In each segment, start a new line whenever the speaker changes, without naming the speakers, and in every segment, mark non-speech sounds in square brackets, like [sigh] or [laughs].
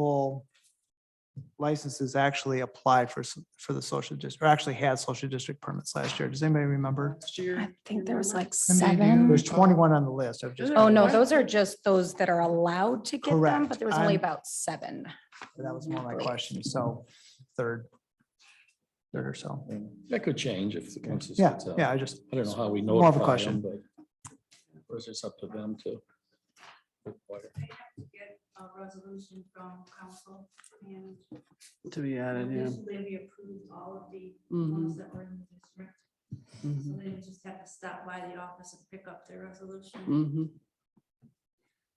multiple licenses actually applied for, s- for the social district, or actually had social district permits last year. Does anybody remember?
last year.
I think there was like
Somebody do-
seven.
There's twenty-one on the list. I've just.
Oh, no,
What?
those are just those that are allowed to get them,
Correct.
but there was only
I'm-
about seven.
That was one of my questions. So third, third or so.
That could change if the council.
Yeah, yeah, I just,
I don't know how we know.
More of a question.
But of course, it's up to them to.
get a resolution from council and
To be added, yeah.
initially we approved all of the
Mm-hmm.
Mm-hmm,
ones that were in the district. So
Mhm,
they would just have to stop by the office and pick up their resolution.
mm-hmm,
mhm,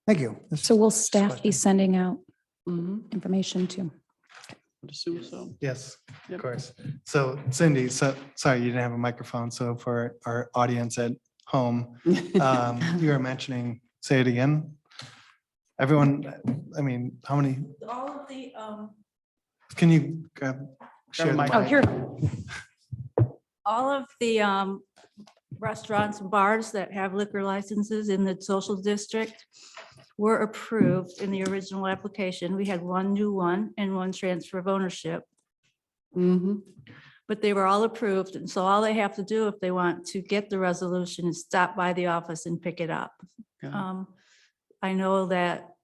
thank you. This-
So will staff be
question.
sending out mm-hmm.
mhm.
information too?
I'd assume so.
Yes, of
Yep.
course. So Cindy, so, sorry, you didn't have a microphone. So for our audience at home,
Uh,
um, you were mentioning, say it again. Everyone, I mean, how many,
All of the, um,
can you grab? share the
mic.
Oh,
mic?
here,
all of the, um, restaurants and bars that have liquor licenses in the social district were approved in the original application. We had one new one and one transfer of ownership.
Mm-hmm,
Mhm.
But they were all approved, and so all they have to do if they want to get the resolution is stop by the office and pick it up.
Got it.
Um, I know that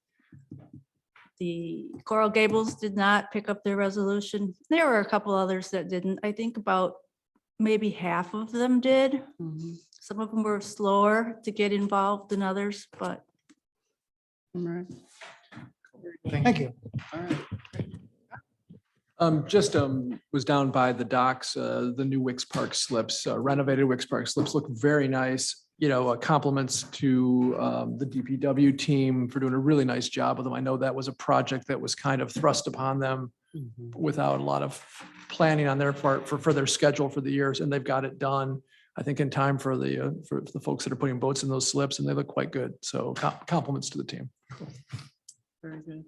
the Coral Gables did not pick up their resolution. There were a couple others that didn't. I think about maybe half of them did.
mm-hmm,
Mhm.
Some of them were slower to get involved than others, but
All right.
Thank you.
All right.
Um, just, um, was down by the docks, uh, the new Wicks Park slips, uh, renovated Wicks Park slips look very nice. You know, uh, compliments to, um, the DPW team for doing a really nice job with them. I know that was a project that was kind of thrust upon them
Mhm.
without a lot of planning on their part for, for their schedule for the years and they've got it done. I think in time for the, uh, for the folks that are putting boats in those slips and they look quite good. So com- compliments to the team.
Very good.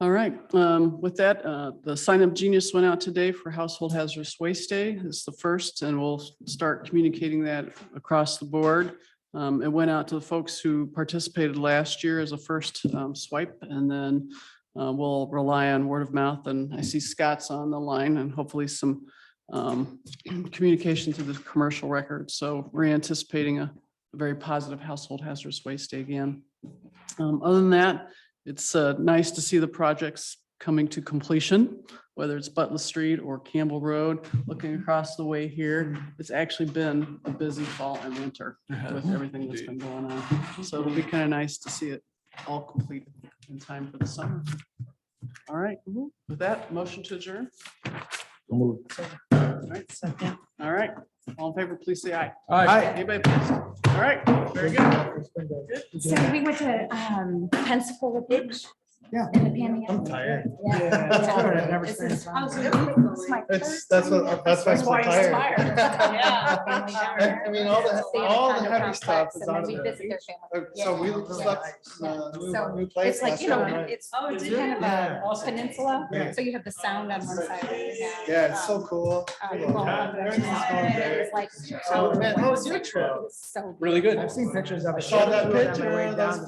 All right, um, with that, uh, the Sign Up Genius went out today for Household Hazardous Waste Day. It's the first, and we'll start communicating that across the board. Um, It went out to the folks who participated last year as a first um, swipe, and then uh, we'll rely on word of mouth. And I see Scott's on the line and hopefully some um, communication to the commercial record. So we're anticipating a very positive Household Hazardous Waste Day again. Um, Other than that, it's uh, nice to see the projects coming to completion, whether it's Butler Street or Campbell Road, looking across the way here. It's actually been a busy fall and winter with everything that's been going on. So it'll be kind of nice to see it all completed in time for the summer. All right, with that, motion to adjourn. All right, second. All right, all in favor, please say aye.
Aye.
Anybody opposed? All right, very good.
so we went to um, Pensacola Beach.
Yeah.
in the Panhandle.
I'm tired.
Yeah.
That's all right, I've never
This
seen
is-
it around.
it's my
It's,
first
that's
time
what,
there.
that's why I'm so tired. [laughs] I I mean, all the,
Stay in a
all the
condo
heavy
complex
stuff is
and then
out of
we visit
there.
their family.
Uh, So we
Yeah.
just left, uh, new-
So
new
It's
place
like,
last
you know,
time, right?
it's
Oh,
it's
is it?
kind of
Yeah.
a peninsula,
Yeah.
so you have the sound on one side. and you have,
Yeah, Oh, it's so
um,
cool.
uh,
Yeah.
well,
Yeah, everything's going great.
It's like.
So, man, how was your trip?
So
Really good.
I've seen pictures of it.
I saw that
On my way
picture,
down
that's
the